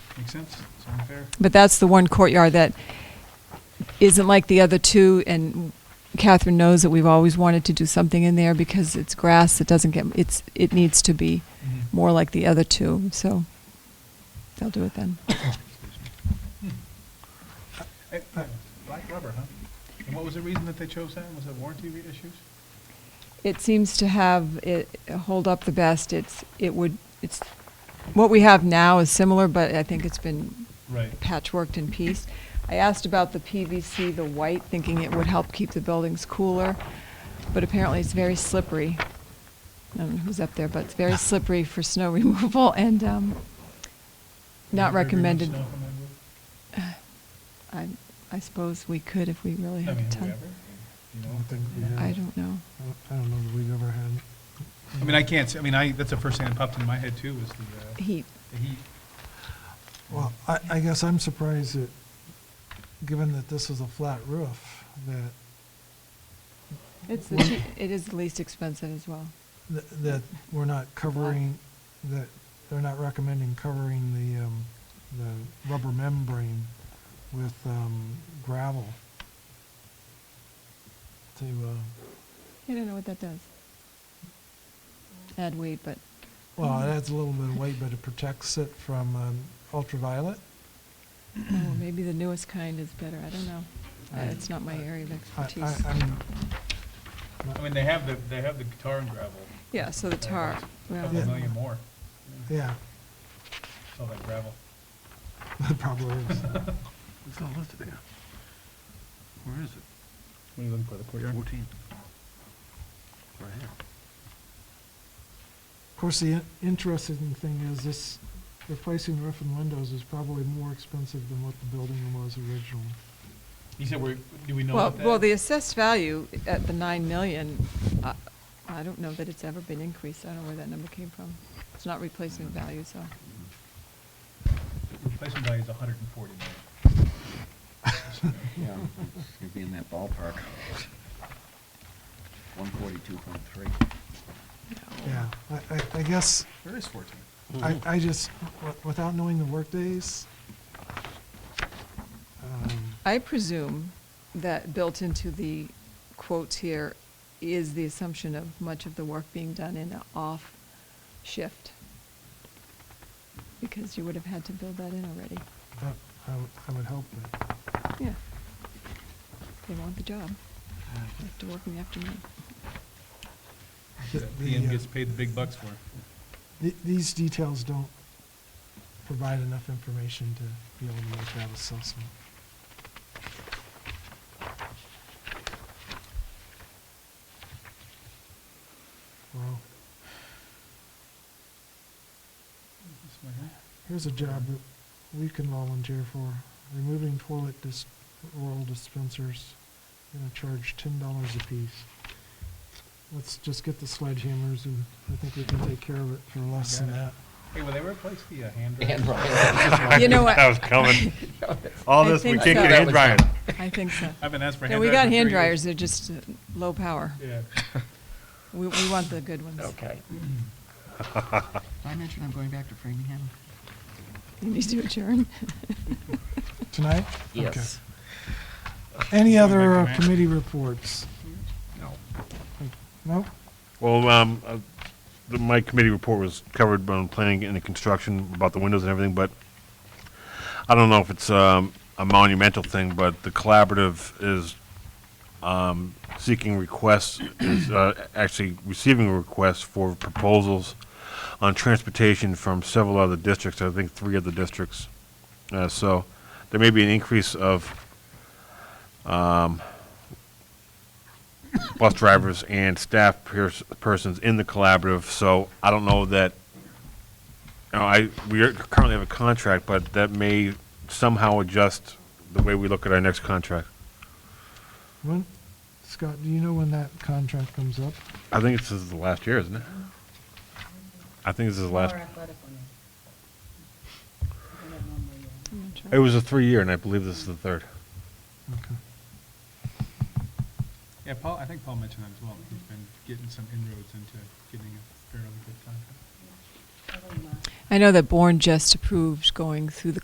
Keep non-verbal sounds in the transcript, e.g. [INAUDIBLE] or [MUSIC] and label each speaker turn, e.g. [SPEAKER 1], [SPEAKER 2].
[SPEAKER 1] Make sense? Sound fair?
[SPEAKER 2] But that's the one courtyard that isn't like the other two, and Catherine knows that we've always wanted to do something in there because it's grass, it doesn't get, it's, it needs to be
[SPEAKER 1] Mhm.
[SPEAKER 2] more like the other two, so they'll do it then.
[SPEAKER 1] Eh, eh, Black rubber, huh? And what was the reason that they chose that? Was it warranty re- issues?
[SPEAKER 2] It seems to have, it hold up the best, it's, it would, it's, what we have now is similar, but I think it's been
[SPEAKER 1] Right.
[SPEAKER 2] patchworked in piece. I asked about the PVC, the white, thinking it would help keep the buildings cooler, but apparently it's very slippery. I don't know who's up there, but it's very slippery for snow [LAUGHS] removal and um, not recommended. I, I suppose we could if we really
[SPEAKER 1] I
[SPEAKER 2] had
[SPEAKER 1] mean, have
[SPEAKER 2] a
[SPEAKER 1] we
[SPEAKER 2] ton.
[SPEAKER 1] ever? You know?
[SPEAKER 3] I think we have.
[SPEAKER 2] I don't know.
[SPEAKER 3] I don't know that we've ever had.
[SPEAKER 1] I mean, I can't, s- I mean, I, that's the first thing that popped in my head too, was the, uh,
[SPEAKER 2] Heat.
[SPEAKER 1] the heat.
[SPEAKER 3] Well, I, I guess I'm surprised that, given that this is a flat roof, that,
[SPEAKER 2] It's the cheap, it is the least expensive as well.
[SPEAKER 3] that- that we're not covering, that they're not recommending covering the, um, the rubber membrane with, um, gravel to, uh,
[SPEAKER 2] I don't know what that does. Add weight, but
[SPEAKER 3] well, it adds a little bit of weight, but it protects it from, um, ultraviolet.
[SPEAKER 2] oh, maybe the newest kind is better. I don't know. Uh,
[SPEAKER 3] I-
[SPEAKER 2] It's not my area of
[SPEAKER 3] I,
[SPEAKER 2] expertise.
[SPEAKER 3] I, I'm.
[SPEAKER 1] I mean, they have the, they have the tar and gravel.
[SPEAKER 2] Yeah, so the
[SPEAKER 1] They
[SPEAKER 2] tar,
[SPEAKER 1] have a
[SPEAKER 2] well,
[SPEAKER 1] Couple
[SPEAKER 3] Yeah.
[SPEAKER 1] million more.
[SPEAKER 3] Yeah, [LAUGHS]
[SPEAKER 1] It's All that gravel.
[SPEAKER 3] that probably is.
[SPEAKER 4] It's all listed there. Where is it?
[SPEAKER 1] When you look for the courtyard.
[SPEAKER 4] Fourteen. Right here.
[SPEAKER 3] Of course, the in- interesting thing is this, replacing roof and windows is probably more expensive than what the building was originally.
[SPEAKER 1] You said, we're, do we know
[SPEAKER 2] well,
[SPEAKER 1] what that?
[SPEAKER 2] well, the assessed value at the nine million, I, I don't know that it's ever been increased. I don't know where that number came from. It's not replacement value, so.
[SPEAKER 1] Replacement value is a hundred and forty million. [LAUGHS]
[SPEAKER 4] Yeah, you'd be in that ballpark. One forty-two point three.
[SPEAKER 3] Yeah, I, I, I guess,
[SPEAKER 1] There is fourteen.
[SPEAKER 3] I, I just, wi- without knowing the workdays, um,
[SPEAKER 2] I presume that built into the quotes here is the assumption of much of the work being done in an off shift. Because you would have had to build that in already.
[SPEAKER 3] but I, would- I would hope that,
[SPEAKER 2] Yeah. They want the job. They have to work in the afternoon.
[SPEAKER 3] The-
[SPEAKER 1] That
[SPEAKER 3] the,
[SPEAKER 1] PM
[SPEAKER 3] uh,
[SPEAKER 1] gets paid the big bucks for.
[SPEAKER 3] th- these details don't provide enough information to be able to make that assessment. Well, Here's a job that we can volunteer for, removing toilet dis- roll dispensers, gonna charge ten dollars apiece. Let's just get the sledgehammers and I think we can take care of it for less than that.
[SPEAKER 1] Hey, will they replace the uh, hand dryer?
[SPEAKER 4] And Brian. [LAUGHS]
[SPEAKER 2] You know what?
[SPEAKER 5] That was coming. All
[SPEAKER 2] I
[SPEAKER 5] this, we
[SPEAKER 2] think
[SPEAKER 5] can't
[SPEAKER 2] so.
[SPEAKER 5] get
[SPEAKER 2] That
[SPEAKER 5] hand
[SPEAKER 2] was
[SPEAKER 5] drying.
[SPEAKER 2] [LAUGHS] I think so.
[SPEAKER 1] I've been asked for
[SPEAKER 2] Yeah,
[SPEAKER 1] hand dryers.
[SPEAKER 2] we got
[SPEAKER 1] for
[SPEAKER 2] hand
[SPEAKER 1] three years.
[SPEAKER 2] dryers, they're just uh, low power.
[SPEAKER 1] Yeah.
[SPEAKER 2] We, we want the good ones.
[SPEAKER 5] Okay.
[SPEAKER 4] I mentioned I'm going back to Framingham.
[SPEAKER 2] [LAUGHS] You need to adjourn.
[SPEAKER 3] Tonight? Okay. Any other uh,
[SPEAKER 1] Recommend.
[SPEAKER 3] committee reports?
[SPEAKER 4] No.
[SPEAKER 3] Nope?
[SPEAKER 5] Well, um, uh, the- my committee report was covered on planning and the construction about the windows and everything, but I don't know if it's, um, a monumental thing, but the collaborative is, um, seeking requests, is, uh, actually receiving requests for proposals on transportation from several other districts, I think three other districts. Uh, so there may be an increase of, bus drivers and staff pers- persons in the collaborative, so I don't know that, you know, I, we are- currently have a contract, but that may somehow adjust the way we look at our next contract.
[SPEAKER 3] When, Scott, do you know when that contract comes up?
[SPEAKER 5] I think this is the last year, isn't it? I think this is the last,
[SPEAKER 6] More athletic women. I don't normally, uh,
[SPEAKER 2] I'm not
[SPEAKER 5] it
[SPEAKER 2] sure.
[SPEAKER 5] was a three-year, and I believe this is the third.
[SPEAKER 3] Okay.
[SPEAKER 1] Yeah, Paul, I think Paul mentioned that as well. He's been getting some inroads into getting a fairly good contract.
[SPEAKER 6] I don't mind.
[SPEAKER 2] I know that Bourne just approved going through the